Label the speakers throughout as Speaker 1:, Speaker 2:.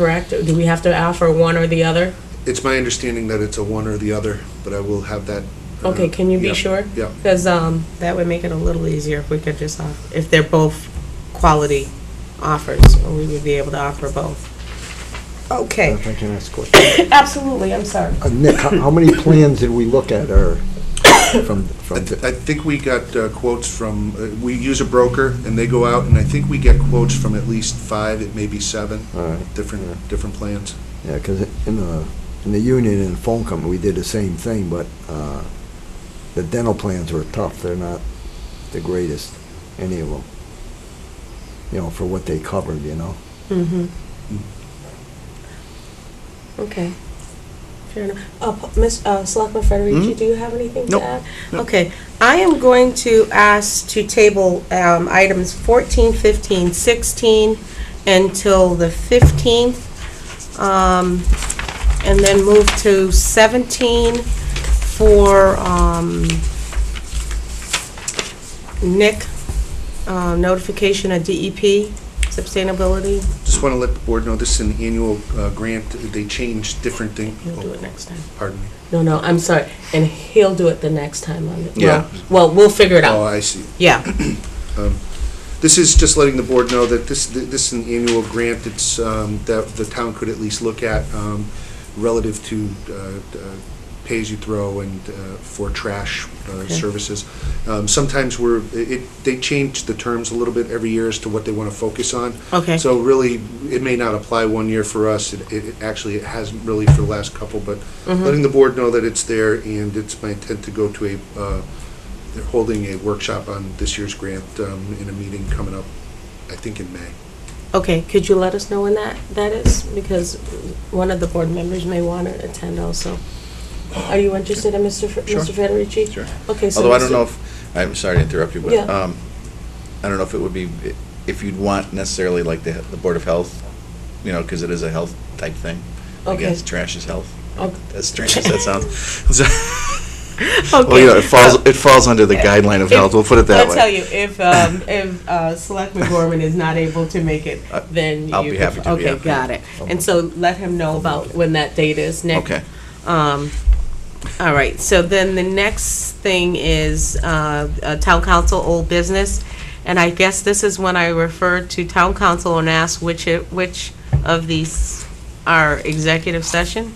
Speaker 1: correct? Do we have to offer one or the other?
Speaker 2: It's my understanding that it's a one or the other, but I will have that. uh,
Speaker 1: Okay, can you be
Speaker 2: yeah,
Speaker 1: sure?
Speaker 2: Yeah,
Speaker 1: Because, um,
Speaker 3: That would make it a little easier if we could just, off- if they're both quality offers, or we would be able to offer both. Okay,
Speaker 4: If I can ask a question.
Speaker 3: absolutely, I'm sorry.
Speaker 4: Uh, Nick, how how many plans did we look at or from, from,
Speaker 2: I th- I think we got uh, quotes from, uh, we use a broker and they go out and I think we get quotes from at least five, it may be seven,
Speaker 4: all right,
Speaker 2: different, different plans.
Speaker 4: yeah, because in the, in the union and phone company, we did the same thing, but uh, the dental plans were tough. They're not the greatest, any of them. You know, for what they covered, you know?
Speaker 3: Mm-hmm.
Speaker 1: okay. Fair enough. Uh, P- Miss, uh, Selectman Federici,
Speaker 2: Mhm.
Speaker 1: do you have anything to
Speaker 2: Nope.
Speaker 1: add?
Speaker 3: Okay, I am going to ask to table um, items 14, 15, 16 until the 15th, um, and then move to 17 for um, Nick, uh, notification of DEP, sustainability.
Speaker 2: Just want to let the board know this is an annual uh, grant. They change different things.
Speaker 3: You'll do it next time.
Speaker 2: Pardon me.
Speaker 1: No, no, I'm sorry. And he'll do it the next time on it.
Speaker 2: Yeah.
Speaker 1: Well, well, we'll figure it
Speaker 2: Oh,
Speaker 1: out.
Speaker 2: I see.
Speaker 3: Yeah.
Speaker 2: This is just letting the board know that this, this is an annual grant that's, um, that the town could at least look at um, relative to uh, uh, pay-as-you-throw and uh, for trash uh, services. Um, Sometimes we're, it, they change the terms a little bit every year as to what they want to focus on.
Speaker 3: Okay.
Speaker 2: So really, it may not apply one year for us. It, it it actually, it hasn't really for the last couple, but
Speaker 3: Mm-hmm.
Speaker 2: letting the board know that it's there and it's my intent to go to a, uh, they're holding a workshop on this year's grant um, in a meeting coming up, I think in May.
Speaker 3: Okay,
Speaker 1: Could you let us know when that, that is? Because one of the board members may want to attend also. Are you interested in Mr. Fe-
Speaker 5: Sure.
Speaker 1: Mr. Federici?
Speaker 5: Sure.
Speaker 1: Okay, so.
Speaker 5: Although I don't
Speaker 1: Mr.
Speaker 5: know if, I'm sorry to interrupt you, but
Speaker 1: Yeah.
Speaker 5: um, I don't know if it would be, if you'd want necessarily like the, the Board of Health, you know, because it is a health type thing. I
Speaker 1: Okay.
Speaker 5: guess trash is health.
Speaker 1: Okay.
Speaker 5: As strange as that sounds. So- Well, you know, it falls, it falls under the guideline of health, we'll put it that
Speaker 3: Uh, I'll tell
Speaker 5: way.
Speaker 3: you, if, um, if, uh, Selectman Gorman is not able to make it,
Speaker 5: I-
Speaker 3: then
Speaker 5: Uh, I'll
Speaker 3: you
Speaker 5: be
Speaker 3: could-
Speaker 5: happy to, yeah.
Speaker 3: Okay, got it. And so let him know about when that date is, Nick.
Speaker 5: Okay.
Speaker 3: Um, all right, so then the next thing is, uh, uh, Town Council Old Business. And I guess this is when I refer to Town Council and ask which, it- which of these are executive session?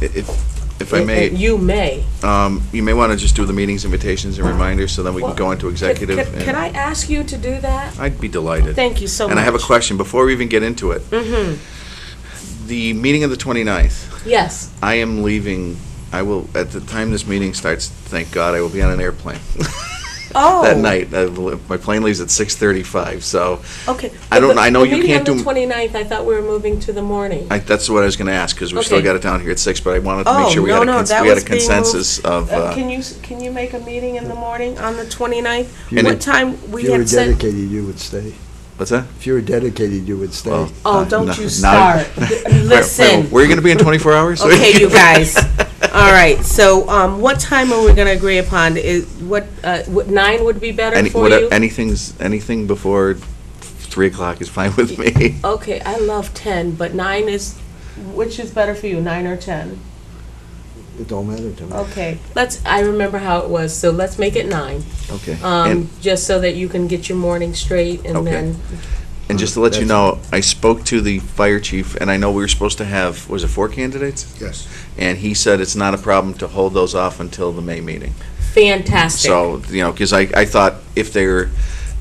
Speaker 5: It- it- If I may,
Speaker 1: You may.
Speaker 5: um, you may want to just do the meetings invitations and reminders, so then we can go into executive.
Speaker 1: Could- could-
Speaker 5: and-
Speaker 1: Could I ask you to do that?
Speaker 5: I'd be delighted.
Speaker 3: Thank you so much.
Speaker 5: And I have a question, before we even get into it.
Speaker 3: Mm-hmm.
Speaker 5: The meeting of the 29th,
Speaker 1: Yes.
Speaker 5: I am leaving. I will at the time this meeting starts. Thank God, I will be on an airplane
Speaker 3: Oh.
Speaker 5: that night. I will, my plane leaves at six thirty-five. So
Speaker 3: Oh,
Speaker 1: Okay.
Speaker 5: I don't-
Speaker 1: But
Speaker 5: I know you can't
Speaker 1: The meeting
Speaker 5: do-
Speaker 1: on the 29th, I thought we were moving to the morning.
Speaker 3: Uh,
Speaker 5: I, that's what I was going to ask because we still
Speaker 1: Okay.
Speaker 5: got it down here at six. But I wanted to
Speaker 3: Oh,
Speaker 5: make sure we
Speaker 3: no,
Speaker 5: had a,
Speaker 3: no,
Speaker 5: cons-
Speaker 3: that
Speaker 5: we had a
Speaker 3: was being moved.
Speaker 5: consensus of.
Speaker 3: Uh,
Speaker 5: Uh,
Speaker 3: Can you, s- can you make a meeting in the morning on the 29th?
Speaker 4: And
Speaker 3: What
Speaker 5: it-
Speaker 3: time,
Speaker 4: If
Speaker 3: we
Speaker 4: you were
Speaker 3: had said,
Speaker 4: dedicated, you would stay.
Speaker 5: what's that?
Speaker 4: If you were dedicated, you would stay.
Speaker 5: Well,
Speaker 3: oh,
Speaker 5: no,
Speaker 3: don't
Speaker 5: no,
Speaker 3: you
Speaker 5: not-
Speaker 3: start.
Speaker 5: Wait, wait,
Speaker 3: Listen.
Speaker 5: where are you going to be in twenty-four hours?
Speaker 3: Okay, you guys. All right, so um, what time are we going to agree upon? Is, what, uh,
Speaker 1: Would- Nine would be better
Speaker 5: Any,
Speaker 1: for
Speaker 5: what,
Speaker 1: you?
Speaker 5: anything's anything before three o'clock is fine with me.
Speaker 1: Okay, I love 10, but nine is,
Speaker 3: which is better for you, 9 or 10?
Speaker 4: It don't matter to me.
Speaker 3: Okay,
Speaker 1: let's, I remember how it was, so let's make it nine.
Speaker 5: Okay. and,
Speaker 1: Um, just so that you can get your morning straight and
Speaker 5: Okay.
Speaker 1: then,
Speaker 5: And just to let you
Speaker 4: That's-
Speaker 5: know, I spoke to the fire chief, and I know we were supposed to have, was it four candidates?
Speaker 2: Yes.
Speaker 5: And he said it's not a problem to hold those off until the May meeting.
Speaker 1: fantastic.
Speaker 5: So, you know, because I, I thought if they're,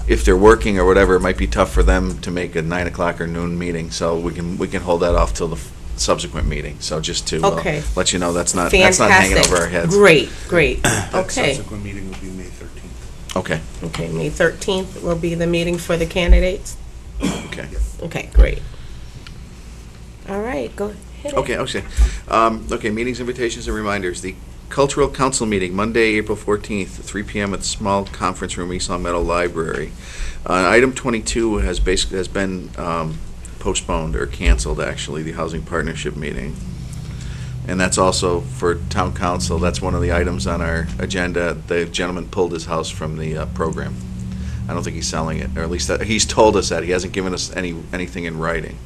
Speaker 5: if they're working or whatever, it might be tough for them to make a nine o'clock or noon meeting, so we can, we can hold that off till the subsequent meeting. So just to uh,
Speaker 3: Okay.
Speaker 5: let you know, that's not, that's not hanging over our
Speaker 3: fantastic.
Speaker 5: heads.
Speaker 3: Great, great.
Speaker 2: That
Speaker 3: Okay,
Speaker 2: subsequent meeting will be May 13th.
Speaker 5: Okay,
Speaker 3: okay, May 13th will be the meeting for the candidates?
Speaker 5: okay.
Speaker 3: Okay, great. All right, go,
Speaker 5: Okay, okay. Um, okay, meetings, invitations, and reminders. The Cultural Council meeting, Monday, April fourteenth, three PM at the small conference room, East Long Meadow Library. Uh, item twenty-two has basically, has been, um, postponed or canceled, actually, the Housing Partnership meeting. And that's also for Town Council. That's one of the items on our agenda. The gentleman pulled his house from the, uh, program. I don't think he's selling it, or at least that, he's told us that. He hasn't given us any, anything in writing.